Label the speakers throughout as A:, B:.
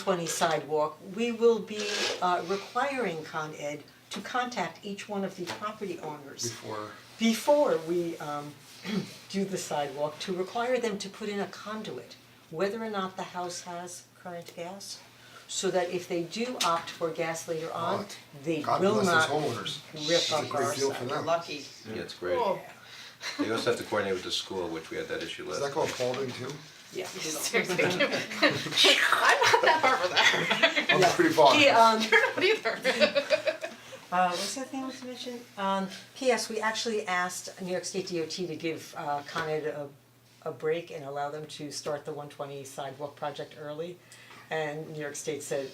A: twenty sidewalk, we will be uh requiring Con Ed to contact each one of the property owners
B: before.
A: before we um do the sidewalk to require them to put in a conduit, whether or not the house has current gas. So that if they do opt for gas later on,
B: Right.
A: they
B: God
A: will
B: bless those
A: not
B: homeowners.
A: rip
B: It's a
A: up our
B: great deal for
A: sidewalk.
B: them.
C: Lucky.
D: Yeah, it's great. They also have to coordinate with the school, which we had that issue
B: Is
D: last.
B: that called balding too?
A: Yeah.
C: Seriously. I'm not that far from that.
B: I'm pretty bald.
A: He, um,
C: You're not either.
A: Uh, what's that thing I was to mention? Um, P.S. We actually asked New York State DOT to give uh, Con Ed a, a break and allow them to start the one twenty sidewalk project early. And New York State said,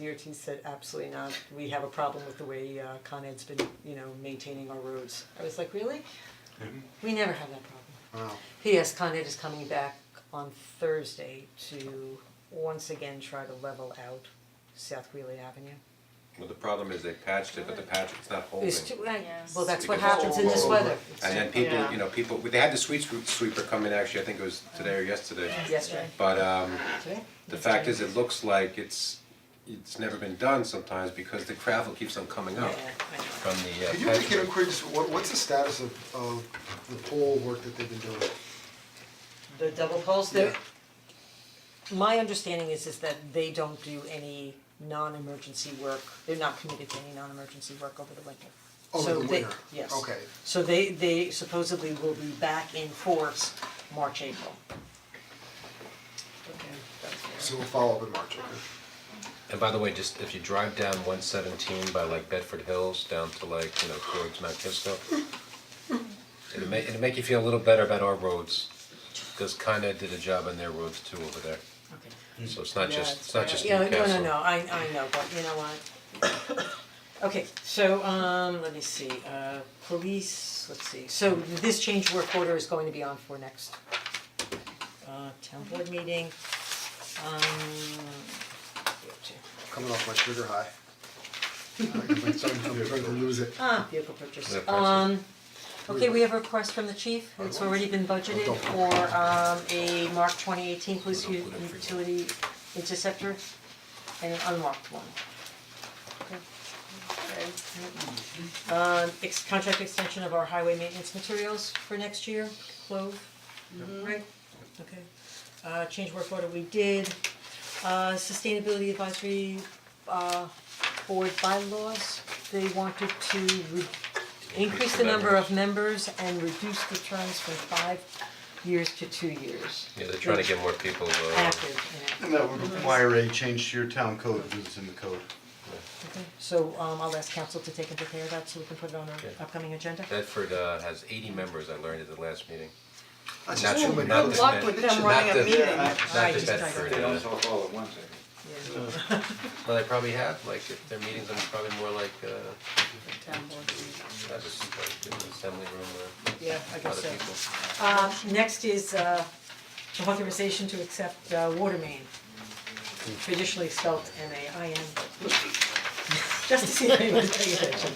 A: DOT said, absolutely not, we have a problem with the way uh, Con Ed's been, you know, maintaining our roads. I was like, really? We never have that problem.
B: Wow.
A: P.S. Con Ed is coming back on Thursday to once again try to level out South Greeley Avenue.
D: Well, the problem is they patched it, but the patch, it's not holding.
A: It's too, uh,
C: Yes.
A: well, that's what
D: Because it's
A: happens in this
B: all
A: weather.
B: over.
D: And then people,
C: Yeah.
D: you know, people, they had the sweet sweep- sweeper come in actually, I think it was today or yesterday.
A: Yesterday.
D: But um,
A: Today?
D: the fact is, it looks like it's, it's never been done sometimes because the gravel keeps on coming
A: Yeah,
D: up
A: I know.
D: from the uh,
B: Could you make an
D: patchwork.
B: inquiry, just what, what's the status of, of the poll work that they've been doing?
A: The double poles, there,
B: Yeah.
A: my understanding is is that they don't do any non-emergency work, they're not committed to any non-emergency work over the winter.
B: Over
A: So
B: the
A: they-
B: winter?
A: Yes.
B: Okay.
A: So they they supposedly will be back in force March, April.
B: So we'll follow up in March, okay?
D: And by the way, just if you drive down one seventeen by like Bedford Hills, down to like, you know, towards Mount Kisco. It'll make, it'll make you feel a little better about our roads, cause Con Ed did a job on their roads too over there,
A: Okay.
D: so it's not
A: Yeah,
D: just, it's not just
A: yeah, No, no,
D: Newcastle.
A: no, I I know, but you know what? Okay, so um let me see, uh police, let's see, so this change work order is going to be on for next uh town board meeting. Um
B: Coming off my sugar high. I'm starting I'm starting to lose it.
A: ah, vehicle purchase,
D: Yeah, purchase.
A: um okay, we Oh, have a request from the chief, it's already been budgeted for um a March twenty eighteen police u- utility interceptor and an unmarked one. Um, ex- contract extension of our highway maintenance materials for next year, Clove, right? Okay, uh, change work order we did, uh, sustainability advisory, uh, board bylaws, they wanted to re- increase
D: the
A: the number of members and reduce the terms from five years to two years.
D: Yeah, they're trying to get more people, uh,
A: Active, and
E: And that would require a change to your town code, because it's in the code.
A: Okay, so um I'll ask council to take and prepare that so we can put it on our
D: Okay.
A: upcoming agenda.
D: Bedford uh has eighty members, I learned at the last meeting.
B: That's
D: Not
B: just
D: the-
B: women.
D: not the
C: luck
D: Bed-
C: with them running a meeting.
A: I
D: Not the, not the
A: just typed
D: Bedford,
A: it.
D: uh,
F: talk all at once, I think.
D: well, they probably have, like, if their meetings are probably more like uh, not just, like, an assembly room uh, where
A: Yeah, I
D: a lot
A: guess
D: of
A: so.
D: people.
A: Um next is uh authorization to accept uh water main. Traditionally spelled M A I N. Just to see if anyone's paying attention.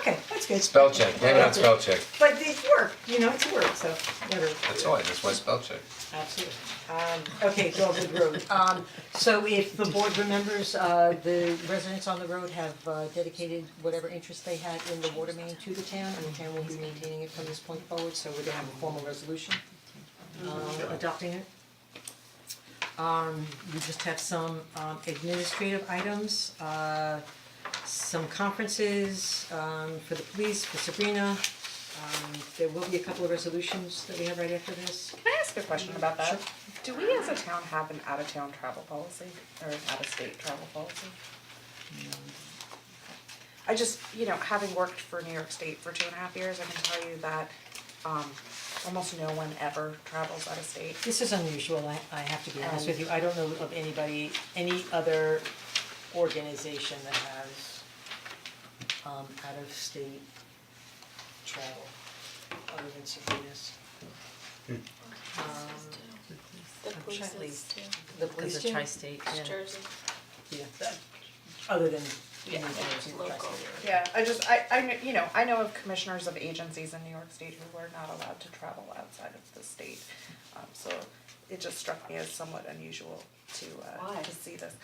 A: Okay, that's good,
D: Spell check, blame it on spell check.
A: but it's work, you know, it's work, so whatever.
D: That's all, right, that's why spell check.
A: Absolutely. Um, okay, Dogwood Road. Um, so if the board remembers, uh, the residents on the road have uh, dedicated whatever interest they had in the water main to the town, and the town will be maintaining it from this point forward, so we're gonna have a formal resolution, uh, adopting it. Um, we just have some, um, administrative items, uh, some conferences, um, for the police, for Sabrina. Um, there will be a couple of resolutions that we have right after this.
C: Can I ask a question about that? Do we as a town have an out-of-town travel policy or an out-of-state travel policy? I just, you know, having worked for New York State for two and a half years, I can tell you that um almost no one ever travels out of state.
A: This is unusual, I I have to be honest with you, I don't know of anybody, any other organization that has um out of state travel other than Sabrina's. Um,
G: The
A: I'm
G: police
A: trying to-
G: is too.
A: the police
H: Because of
A: do?
H: tri-state, yeah.
G: Jersey.
A: Yeah, that- other than
G: Yeah,
A: New Jersey,
G: local.
A: tri-state.
C: Yeah, I just, I I kn- you know, I know of commissioners of agencies in New York State who were not allowed to travel outside of the state. Um so it just struck me as somewhat unusual to uh
G: Why?
C: to see this.